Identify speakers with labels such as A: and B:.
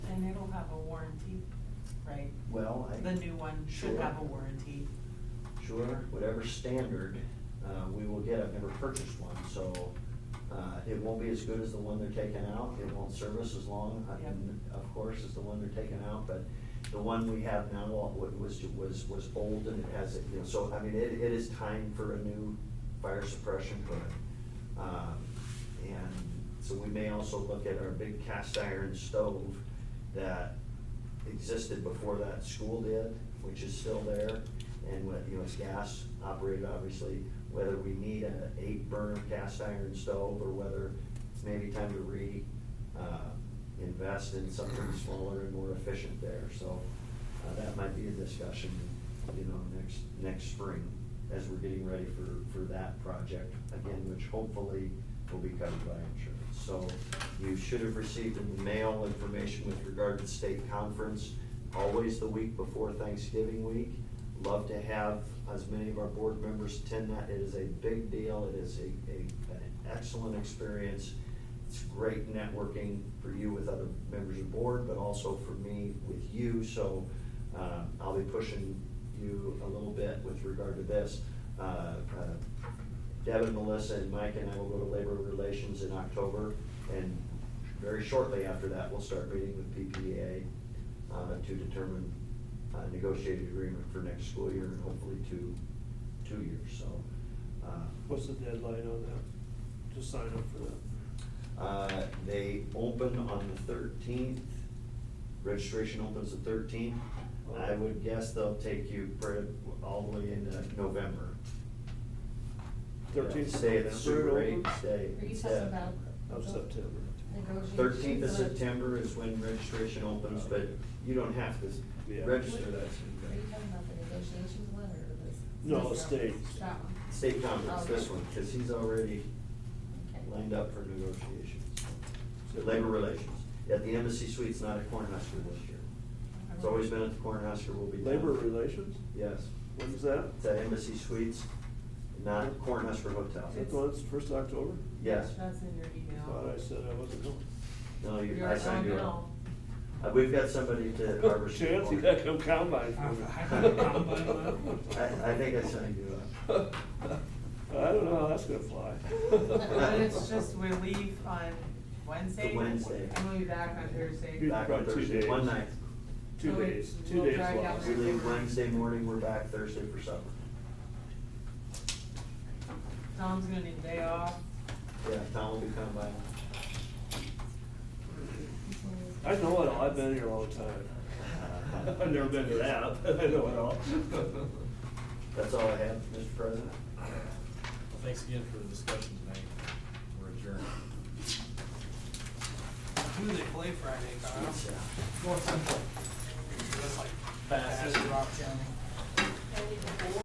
A: have a warranty, right?
B: Well, I.
A: The new one should
B: Sure.
A: have a warranty.
B: Sure, whatever standard, uh, we will get, I've never purchased one, so, uh, it won't be as good as the one they're taking out, it won't service as long, uh, and of course, as the one they're taking out, but the one we have now wa- wa- was, was, was old and it has, you know, so, I mean, it, it is time for a new fire suppression hood. Um, And so we may also look at our big cast iron stove that existed before that school did, which is still there, and what, you know, it's gas operated, obviously, whether we need an eight burner cast iron stove, or whether it's maybe time to re, uh, invest in something smaller and more efficient there, so, uh, that might be a discussion, you know, next, next spring, as we're getting ready for, for that project, again, which hopefully will be covered by insurance. So you should have received in the mail information with regard to the state conference, always the week before Thanksgiving week. Love to have as many of our board members attend that. It is a big deal. It is a, a, an excellent experience. It's great networking for you with other members of the board, but also for me with you. So, uh, I'll be pushing you a little bit with regard to this. Uh, uh, Devin, Melissa, and Mike and I will go to labor relations in October, and very shortly after that, we'll start meeting with PPA uh, to determine a negotiated agreement for next school year and hopefully two, two years, so. uh,
C: What's the deadline on that, to sign up for that?
B: uh, They open on the thirteenth, registration opens the thirteenth. I would guess they'll take you pre- all the way into November.
C: Thirteenth of
B: Stay at uh, the Super
C: November, it
B: Eight,
C: opens?
B: stay.
D: Are you
B: yeah.
D: talking about?
C: Of September.
D: Negotiations.
B: Thirteenth of September is when registration opens, but you don't have to s-
C: Yeah.
B: register that.
D: Are you talking about the negotiations one or this?
C: No,
D: this
C: state.
D: one? That one?
B: State
D: Oh,
B: conference, this one, because he's already
D: Okay.
B: lined up for negotiations. Labor relations, at the Embassy Suites, not at Cornhusker this year. It's always been at the Cornhusker, will be down.
C: Labor relations,
B: Yes,
C: when's that?
B: it's at Embassy Suites, not Cornhusker Hotel.
C: Is that the one that's first of October?
B: Yes,
A: That's in your email.
C: Thought I said I wasn't going.
B: no, you,
A: You're-
B: I signed you
A: oh,
B: up. Uh, We've got somebody to harvest. you
C: Oh, Chance, you
B: for
C: gotta
B: me.
C: come combine for me.
B: I, I think I signed you up.
C: I don't know how that's gonna fly.
A: But it's just, we leave on Wednesday.
B: The Wednesday.
A: And we'll be back on Thursday.
C: Good.
B: Back on
C: About two
B: Thursday, one
C: days.
B: night.
C: Two
A: So we-
C: days, two
A: we'll
C: days
A: drive down
C: long.
B: We leave Wednesday morning, we're back Thursday for supper.
A: Tom's gonna need a day off.
B: Yeah, Tom will be coming by.
C: I know it all, I've been here all the time. I've never been to that, but I know it all.
B: That's all I have, Mr. President.
E: Well, Thanks again for the discussion tonight. We're adjourned.
F: Who do they play Friday, Kyle?
B: It's, uh,
F: North Central. That's like
E: Bassett.
F: Bassett, Rock County.